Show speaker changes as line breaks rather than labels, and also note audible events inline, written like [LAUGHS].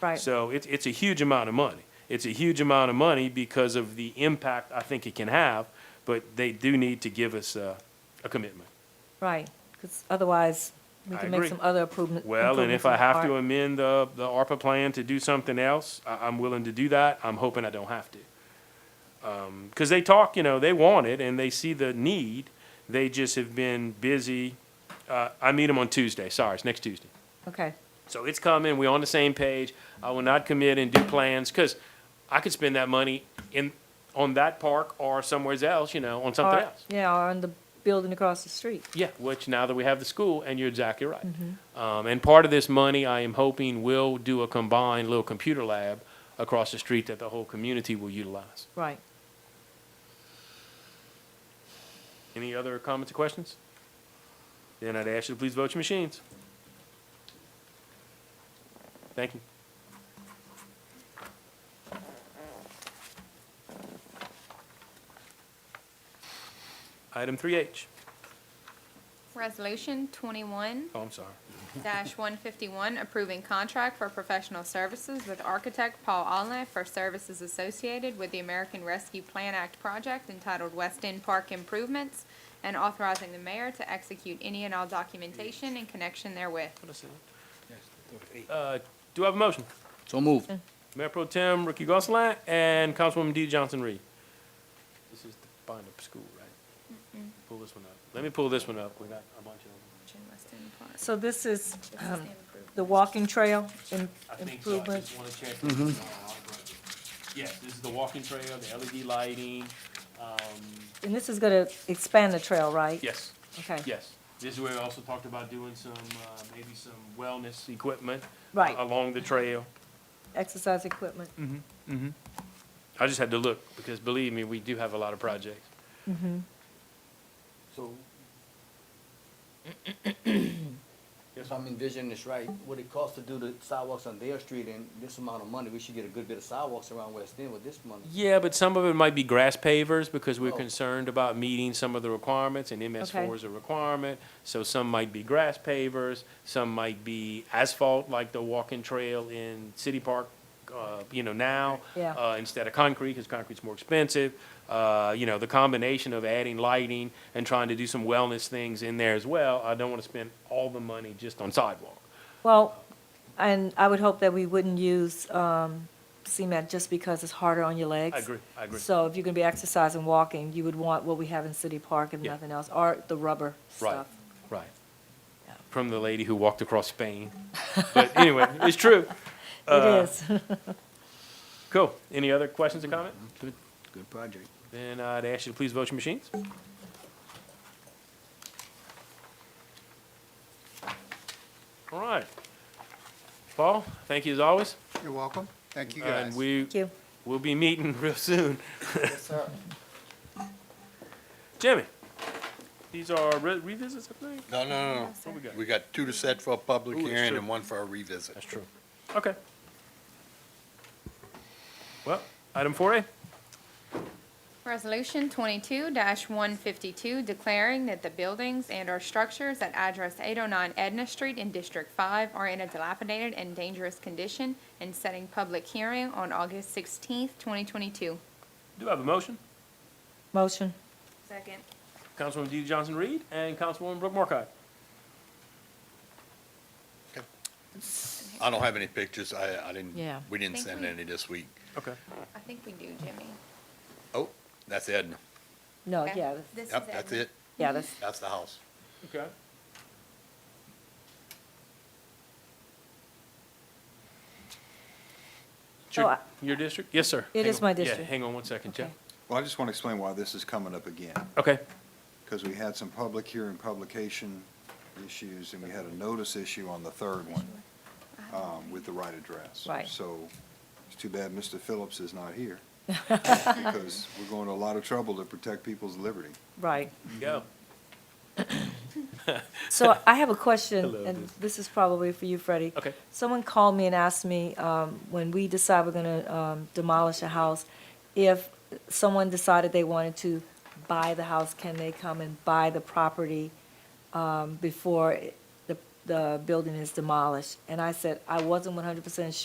Right.
So it's, it's a huge amount of money. It's a huge amount of money because of the impact I think it can have, but they do need to give us a, a commitment.
Right, because otherwise, we
I
can make
agree.
some other improvement- improvements.
Well, and if
in
I
the
have to uh,
park.
amend the, the ARPA plan to do something else, I, I'm willing to do that. I'm hoping I don't have to. Um 'cause cause they talk, you know, they want it and they see the need. They just have been busy. Uh, I meet them on Tuesday. Sorry, it's next Tuesday.
Okay,
So it's coming, we're on the same page. I will not commit and do plans, because I could spend that money in, on that park or somewhere else, you know, on something
or,
else.
yeah, or on the building across the street.
Yeah, which now that we have the school, and you're exactly right. Um, and part of this money, I am hoping will do a combined little computer lab across the street that the whole community will utilize.
Right.
Any other comments or questions? Then I'd ask you to please vote your machines. Thank you. Item three H.
Resolution twenty-one
Oh, I'm sorry.
one fifty-one, approving contract for professional services with architect Paul Allen for services associated with the American Rescue Plan Act project entitled West End Park Improvements, and authorizing the mayor to execute any and all documentation in connection therewith.
What is it? Uh, do I have a motion?
So moved.
Mayor Pro Tem Ricky Gonsalas and Councilwoman Dee Johnson Reed. This is the bind-up school, right? Pull this one up. Let me pull this one up. We got a bunch of
Jim West End Park.
So this is um,
Improvement.
the walking trail im-
them. I think so. I
improvements.
just want to check. this is all right. Yes, this is the walking trail, the LED lighting. Um,
And this is going to expand the trail, right?
yes,
Okay.
yes. This is where we also talked about doing some, uh, maybe some wellness equipment. uh,
Right.
Along the trail.
Exercise equipment.
Mm. I just had to look because believe me, we do have a lot of projects.
So. If I'm envisioning this right, what it costs to do the sidewalks on their street and this amount of money, we should get a good bit of sidewalks around West End with this money.
Yeah, but some of it might be grass pavers because we're
Oh.
concerned about meeting some of the requirements and MS four
Okay.
is a requirement. So some might be grass pavers, some might be asphalt, like the walking trail in City Park, uh, you know, now.
Yeah.
Uh, instead of concrete, because concrete's more expensive. Uh, you know, the combination of adding lighting and trying to do some wellness things in there as well. I don't want to spend all the money just on sidewalk.
Well, and I would hope that we wouldn't use um, cement just because it's harder on your legs.
I agree, I agree.
So if you're going to be exercising, walking, you would want what we have in City Park and
Yeah.
nothing else, or the rubber
Right,
stuff.
right. From the lady who walked across Spain. But anyway, it's true. Uh,
It is. [LAUGHS]
Cool. Any other questions or comment?
Good, good project.
Then I'd ask you to please vote your machines. All right. Paul, thank you as always.
You're welcome. Thank you guys.
And we
Thank you.
will be meeting [LAUGHS] real soon.
Yes, sir.
Jimmy, these are re- revisits, I think?
No, no, no,
What we got?
no. We got two to set for a public
Ooh, that's
hearing
true.
and one for a revisit.
That's true. Okay. Well, item four A.
Resolution twenty-two one fifty-two, declaring that the buildings and/or structures at address eight oh nine Edna Street in District Five are in a dilapidated and dangerous condition, and setting public hearing on August sixteenth, twenty twenty-two.
Do I have a motion?
Motion.
Second.
Councilwoman Dee Johnson Reed and Councilwoman Brooke Morcott.
I don't have any pictures. I, I didn't,
Yeah.
we didn't
Think
send
we-
any this week.
Okay.
I think we do, Jimmy.
Oh, that's Edna.
No,
Okay?
Oh, yeah, that's-
This is
Yep, that's
Edna.
it.
yeah,
[LAUGHS]
that's,
That's the house.
Okay. It's
Oh,
Your,
I-
your district? Yes, sir.
It
Hang
is
on.
my
Yeah,
district.
hang on one second, Jeff.
Okay.
Well, I just want to explain why this is coming up again,
Okay,
because we had some public hearing publication issues, and we had a notice issue on the third one um, with the right address.
Right.
So it's too bad Mr. Phillips is not here, because we're going to a lot of trouble to protect people's liberty.
right.
go.
So I have a question,
Hello,
and
this-
this is probably for you, Freddie.
Okay.
Someone called me and asked me, um, when we decide we're gonna, um, demolish a house, if someone decided they wanted to buy the house, can they come and buy the property, um, before it- the, the building is demolished? And I said, I wasn't one hundred percent sure.